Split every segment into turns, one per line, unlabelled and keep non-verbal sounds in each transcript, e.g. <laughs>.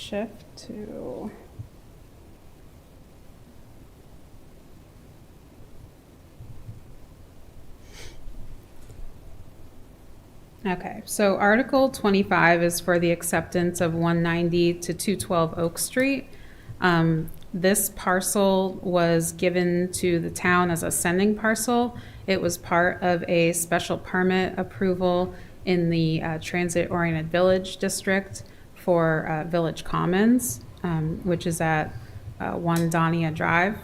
shift to. Okay, so Article 25 is for the acceptance of 190 to 212 Oak Street. Um, This parcel was given to the town as a sending parcel. It was part of a special permit approval in the uh, Transit-Oriented Village District for uh, Village Commons, um, which is at uh, 1 Donia Drive.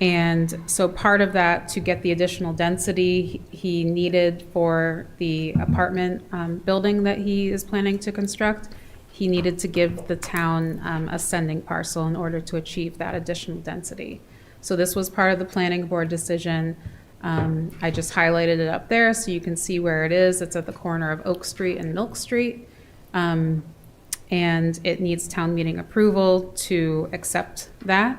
And so part of that, to get the additional density he needed for the apartment um, building that he is planning to construct, he needed to give the town um, a sending parcel in order to achieve that additional density. So this was part of the planning board decision. Um, I just highlighted it up there so you can see where it is. It's at the corner of Oak Street and Milk Street. Um, and it needs town meeting approval to accept that.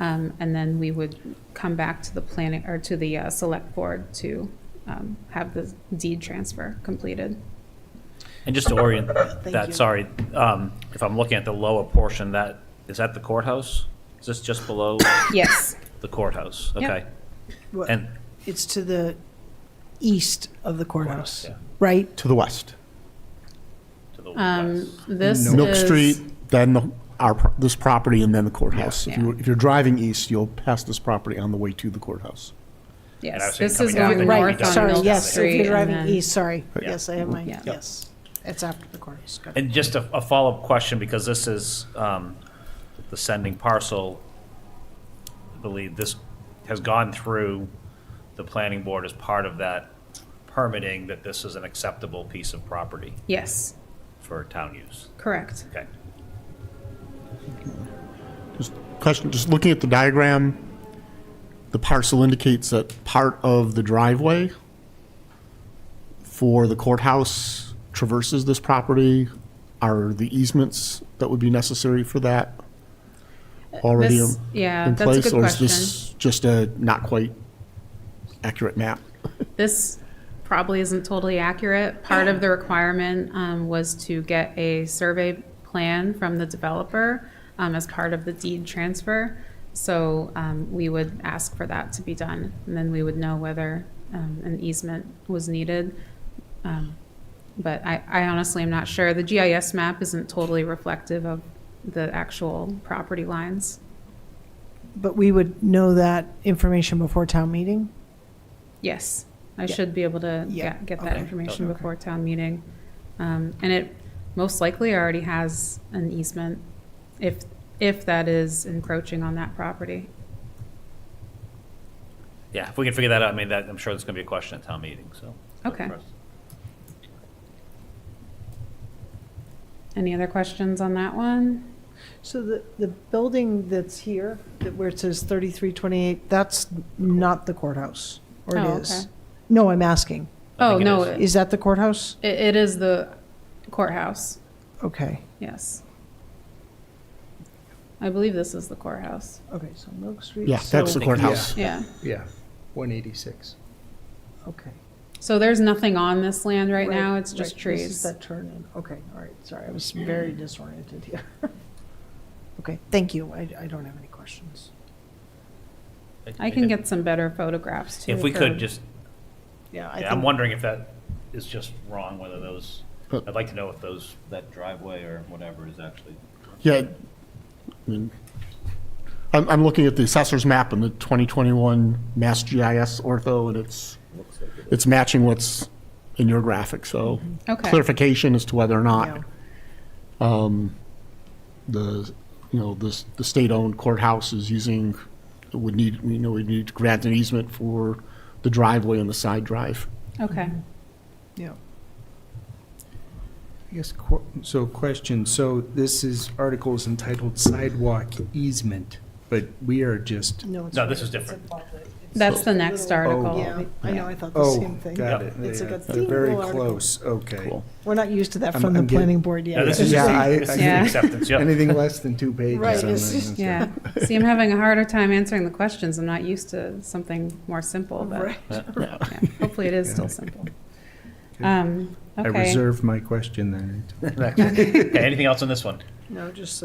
Um, And then we would come back to the planning, or to the uh, select board to um, have the deed transfer completed.
And just to
<laughs>
orient that, sorry, um, if I'm looking at the lower portion, that, is that the courthouse? Is this just below
Yes,
the courthouse?
Yep.
Okay.
What-
And,
It's to the east of the courthouse,
yeah,
right?
to the west.
to the
um,
west.
this is.
Milk Street, then the- our, pro- this property, and then the courthouse. If
Yeah.
you, if you're driving east, you'll pass this property on the way to the courthouse.
And I was
Yes,
saying
this is
coming down
going
the-
north
Right,
down
on
sorry,
Milk
yes, if
Street.
you're
and
driving
then-
east, sorry.
Yeah.
Yes, I have my,
Yeah.
yes. It's after the courthouse. Got it.
And just a, a follow-up question, because this is, um, the sending parcel, I believe this has gone through the planning board as part of that permitting, that this is an acceptable piece of property
Yes,
for town use.
correct.
Okay.
Just question, just looking at the diagram, the parcel indicates that part of the driveway for the courthouse traverses this property. Are the easements that would be necessary for that already in
Uh, This- Yeah,
in
that's a
place?
good
Or is
question.
this just a not quite accurate map?
This probably isn't totally accurate. Part of the requirement um, was to get a survey plan from the developer um, as part of the deed transfer. So um, we would ask for that to be done, and then we would know whether um, an easement was needed. Um, But I I honestly am not sure. The GIS map isn't totally reflective of the actual property lines.
But we would know that information before town meeting?
Yes, I
Yeah.
should be able to
Yeah,
get, get that
okay.
information
Okay.
before town meeting. Um, and it most likely already has an easement if, if that is encroaching on that property.
Yeah, if we can figure that out, I mean, that, I'm sure that's gonna be a question at town meeting, so.
Okay. Any other questions on that one?
So the, the building that's here, that where it says 3328, that's not the courthouse, or
Oh,
it is?
okay.
No, I'm asking.
I
Oh,
think it
no,
is.
it,
Is that the courthouse?
it is the courthouse,
Okay,
yes. I believe this is the courthouse,
okay, so Milk Street.
Yeah,
so-
that's the courthouse.
yeah.
Yeah, 186.
Okay.
So there's nothing on this land right now, it's just
right, This
trees.
is that turn in, okay, all right, sorry, I was very
Mm.
disoriented here. <laughs> Okay, thank you, I, I don't have any questions.
I can get some better photographs too.
If we
for-
could, just,
Yeah, I
yeah, I'm
think-
wondering if that is just wrong, whether those,
Uh,
I'd like to know if those, that driveway or whatever is actually.
Yeah, I mean, I'm, I'm looking at the assessor's map and the 2021 Mass GIS ortho, and it's, it's matching what's in your graphic, so
Okay,
clarification as to whether or
yeah.
not um, the, you know, the, the state-owned courthouse is using, would need, you know, we need to grant an easement for the driveway and the side drive.
okay.
Mm-hmm. Yeah,
I guess, qu- so question, so this is articles entitled sidewalk easement, but we are just,
no, it's.
No, this is different.
That's the next article.
Oh, Yeah, I know, I thought the
oh,
same thing.
got it.
It's like a
They're very
single article.
close, okay.
Cool.
We're not used to that
I'm-
from the
I'm getting-
planning board
Yeah,
yet.
this is
<laughs>
Yeah,
just,
I-
the- this is the
Yeah.
acceptance, yeah.
Anything less than two pages.
Right,
I'm
it's
not
just-
gonna
Yeah. <laughs> See, I'm having a harder time answering the questions. I'm not used to something more simple, but
Right.
yeah, hopefully it is still simple. Um,
say. I
okay.
reserve my question then.
Okay, Anything else on this one?
No, just